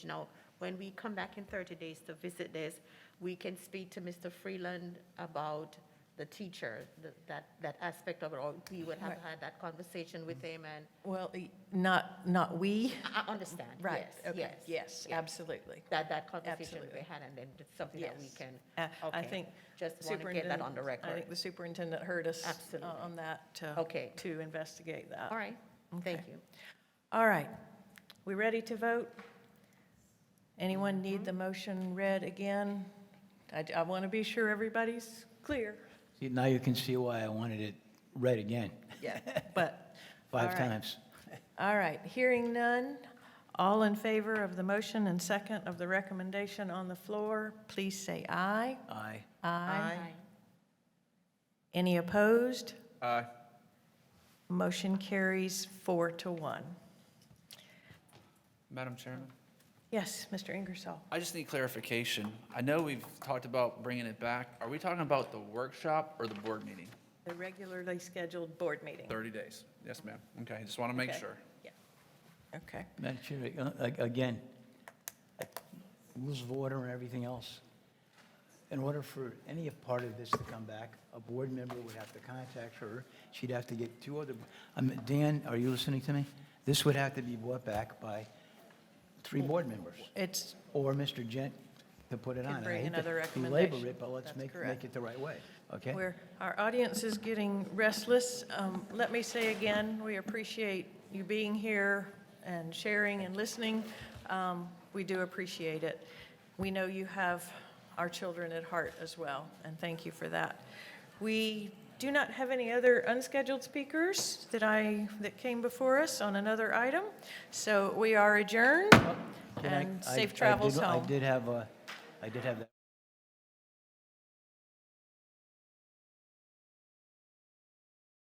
You know, when we come back in 30 days to visit this, we can speak to Mr. Freeland about the teacher, th- that, that aspect of it, or we would have Right. had that conversation with him, and Well, y- not, not we. I I understand, Mm. Right, yes, okay, yes. yes, absolutely. That, that conversation we Absolutely. had, and then it's something that we Yes. can, Uh, I okay. think. Just want to get that on the superintendent- I record. think the superintendent heard us. uh, Absolutely. On that. to- Okay. To investigate that. All right, thank Okay. you. All right. We ready to vote? Anyone need the motion read again? I, I want to be sure everybody's clear. See, now you can see why I wanted it read again, Yeah. But. five all right. times. All right, hearing none. All in favor of the motion and second of the recommendation on the floor, please say aye. Aye. Any opposed? Aye. Motion carries four to one. Madam Chairman? Yes, Mr. Ingersoll? I just need clarification. I know we've talked about bringing it back. Are we talking about the workshop or the board meeting? The regularly scheduled board meeting. 30 days. Yes, ma'am. Okay, I just want to make Okay. sure. Yeah. Okay. Madam Chair, uh, a- again, rules of order and everything else. In order for any part of this to come back, a board member would have to contact her. She'd have to get two other, um, Dan, are you listening to me? This would have to be brought back by three board members, It's, or Mr. Gent to put it Could on. And I bring hate to another Belabor recommendation. it, but let's That's make, correct. make it the right way, okay? where our audience is getting restless. Um, Let me say again, we appreciate you being here and sharing and listening. Um, We do appreciate it. We know you have our children at heart as well, and thank you for that. We do not have any other unscheduled speakers that I, that came before us on another item, so we are adjourned, Did I- and I- I safe travels did- home. I did have, a- I did have that.